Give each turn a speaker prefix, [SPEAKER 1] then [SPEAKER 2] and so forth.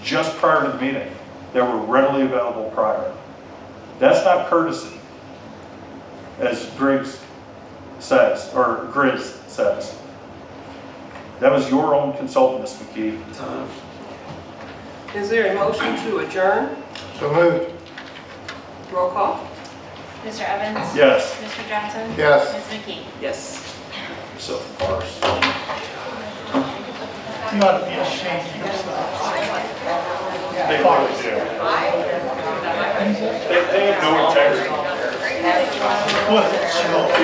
[SPEAKER 1] just prior to the meeting that were readily available prior. That's not courtesy, as Griggs says, or Grizz says. That was your own consultant, Ms. McKee.
[SPEAKER 2] Is there a motion to adjourn?
[SPEAKER 3] So moved.
[SPEAKER 2] Roll call?
[SPEAKER 4] Mr. Evans?
[SPEAKER 1] Yes.
[SPEAKER 4] Mr. Johnson?
[SPEAKER 3] Yes.
[SPEAKER 4] Ms. McKee?
[SPEAKER 2] Yes.
[SPEAKER 1] So farce. They probably do. They, they have no integrity.